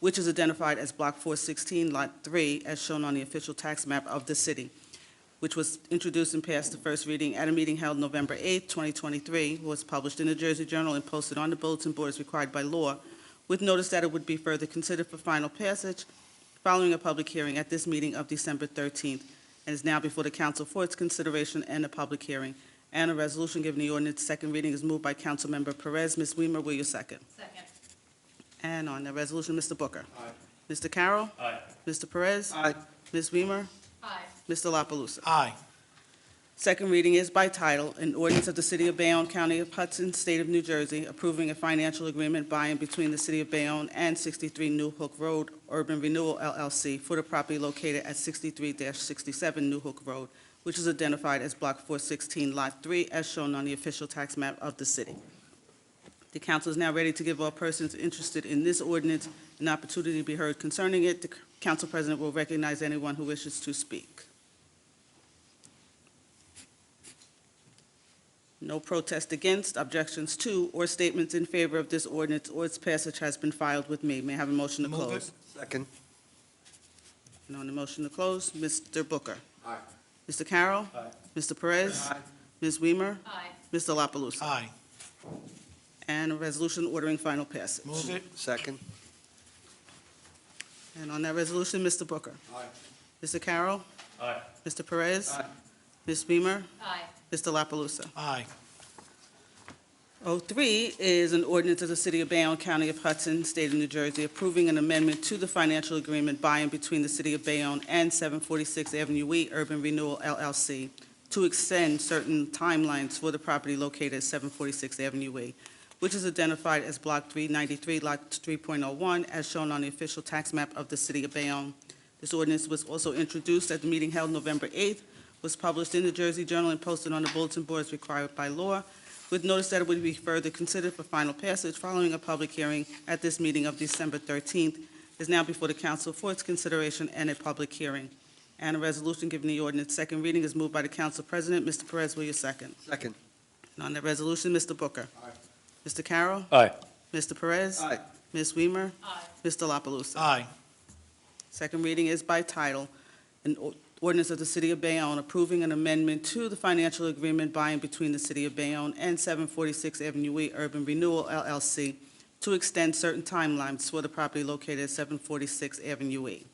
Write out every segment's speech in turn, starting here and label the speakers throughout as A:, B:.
A: which is identified as Block 416, Lot 3, as shown on the official tax map of the city, which was introduced and passed the first reading at a meeting held November 8, 2023, was published in the Jersey Journal and posted on the bulletin board as required by law, with notice that it would be further considered for final passage following a public hearing at this meeting of December 13th, and is now before the council for its consideration and a public hearing. And a resolution giving the ordinance second reading is moved by Councilmember Perez. Ms. Weimer, will you second?
B: Second.
A: And on the resolution, Mr. Booker. Aye. Mr. Carroll.
C: Aye.
A: Mr. Perez.
C: Aye.
A: Ms. Weimer.
B: Aye.
A: Mr. La Palusa?
C: Aye.
A: Second reading is by title, an ordinance of the City of Bayonne, County of Hudson, State of New Jersey, approving a financial agreement by and between the City of Bayonne and 63 New Hook Road Urban Renewal LLC for the property located at 63-67 New Hook Road, which is identified as Block 416, Lot 3, as shown on the official tax map of the city. The council is now ready to give all persons interested in this ordinance an opportunity to be heard concerning it. The council president will recognize anyone who wishes to speak. No protest against, objections to, or statements in favor of this ordinance or its passage has been filed with me. May I have a motion to close?
C: Second.
A: And on the motion to close, Mr. Booker.
C: Aye.
A: Mr. Carroll.
C: Aye.
A: Mr. Perez.
C: Aye.
A: Ms. Weimer.
B: Aye.
A: Mr. La Palusa.
C: Aye.
A: And a resolution ordering final passage.
C: Move it. Second.
A: And on that resolution, Mr. Booker.
C: Aye.
A: Mr. Carroll.
C: Aye.
A: Mr. Perez.
C: Aye.
A: Ms. Weimer.
B: Aye.
A: Mr. La Palusa.
C: Aye.
A: 03 is an ordinance of the City of Bayonne, County of Hudson, State of New Jersey, approving an amendment to the financial agreement by and between the City of Bayonne and 746 Avenue E Urban Renewal LLC to extend certain timelines for the property located at 746 Avenue E, which is identified as Block 393, Lot 3.01, as shown on the official tax map of the City of Bayonne. This ordinance was also introduced at the meeting held November 8th, was published in the Jersey Journal and posted on the bulletin board as required by law, with notice that it would be further considered for final passage following a public hearing at this meeting of December 13th, is now before the council for its consideration and a public hearing. And a resolution giving the ordinance second reading is moved by the council president. Mr. Perez, will you second?
C: Second.
A: And on the resolution, Mr. Booker.
C: Aye.
A: Mr. Carroll.
C: Aye.
A: Mr. Perez.
C: Aye.
A: Ms. Weimer.
B: Aye.
A: Mr. La Palusa.
C: Aye.
A: Second reading is by title, an or- ordinance of the City of Bayonne approving an amendment to the financial agreement by and between the City of Bayonne and 746 Avenue E Urban Renewal LLC to extend certain timelines for the property located at 746 Avenue E.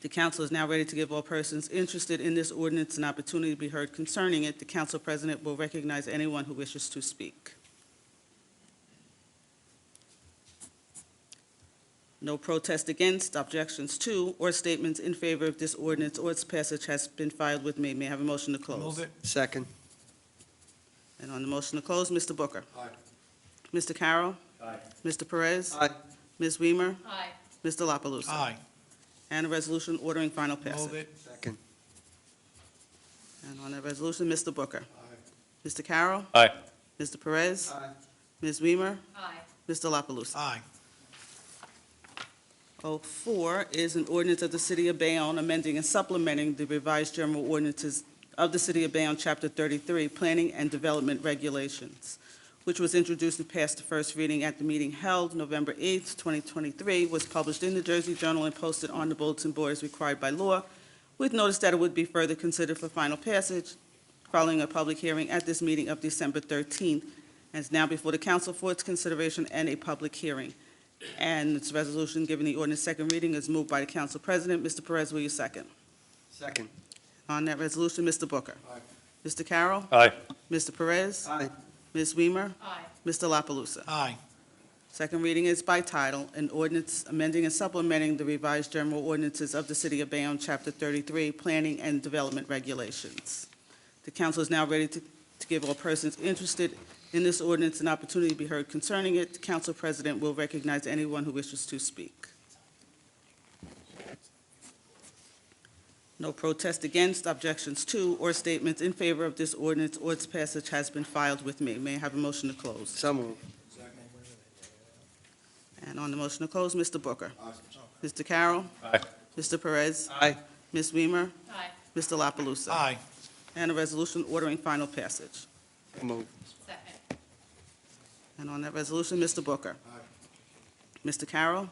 A: The council is now ready to give all persons interested in this ordinance an opportunity to be heard concerning it. The council president will recognize anyone who wishes to speak. No protest against, objections to, or statements in favor of this ordinance or its passage has been filed with me. May I have a motion to close?
C: Move it. Second.
A: And on the motion to close, Mr. Booker.
C: Aye.
A: Mr. Carroll.
C: Aye.
A: Mr. Perez.
C: Aye.
A: Ms. Weimer.
B: Aye.
A: Mr. La Palusa.
C: Aye.
A: And a resolution ordering final passage.
C: Move it. Second.
A: And on that resolution, Mr. Booker.
C: Aye.
A: Mr. Carroll.
C: Aye.
A: Mr. Perez.
C: Aye.
A: Ms. Weimer.
B: Aye.
A: Mr. La Palusa.
C: Aye.
A: 04 is an ordinance of the City of Bayonne amending and supplementing the revised general ordinances of the City of Bayonne, Chapter 33, Planning and Development Regulations, which was introduced and passed the first reading at the meeting held November 8th, 2023, was published in the Jersey Journal and posted on the bulletin board as required by law, with notice that it would be further considered for final passage following a public hearing at this meeting of December 13th, and is now before the council for its consideration and a public hearing. And this resolution giving the ordinance second reading is moved by the council president. Mr. Perez, will you second?
C: Second.
A: On that resolution, Mr. Booker.
C: Aye.
A: Mr. Carroll.
C: Aye.
A: Mr. Perez.
C: Aye.
A: Ms. Weimer.
B: Aye.
A: Mr. La Palusa.
C: Aye.
A: Second reading is by title, an ordinance amending and supplementing the revised general ordinances of the City of Bayonne, Chapter 33, Planning and Development Regulations. The council is now ready to to give all persons interested in this ordinance an opportunity to be heard concerning it. The council president will recognize anyone who wishes to speak. No protest against, objections to, or statements in favor of this ordinance or its passage has been filed with me. May I have a motion to close?
C: So moved.
A: And on the motion to close, Mr. Booker. Mr. Carroll.
C: Aye.
A: Mr. Perez.
C: Aye.
A: Ms. Weimer.
B: Aye.
A: Mr. La Palusa.
C: Aye.
A: And a resolution ordering final passage.
C: Move.
B: Second.
A: And on that resolution, Mr. Booker. Mr. Carroll?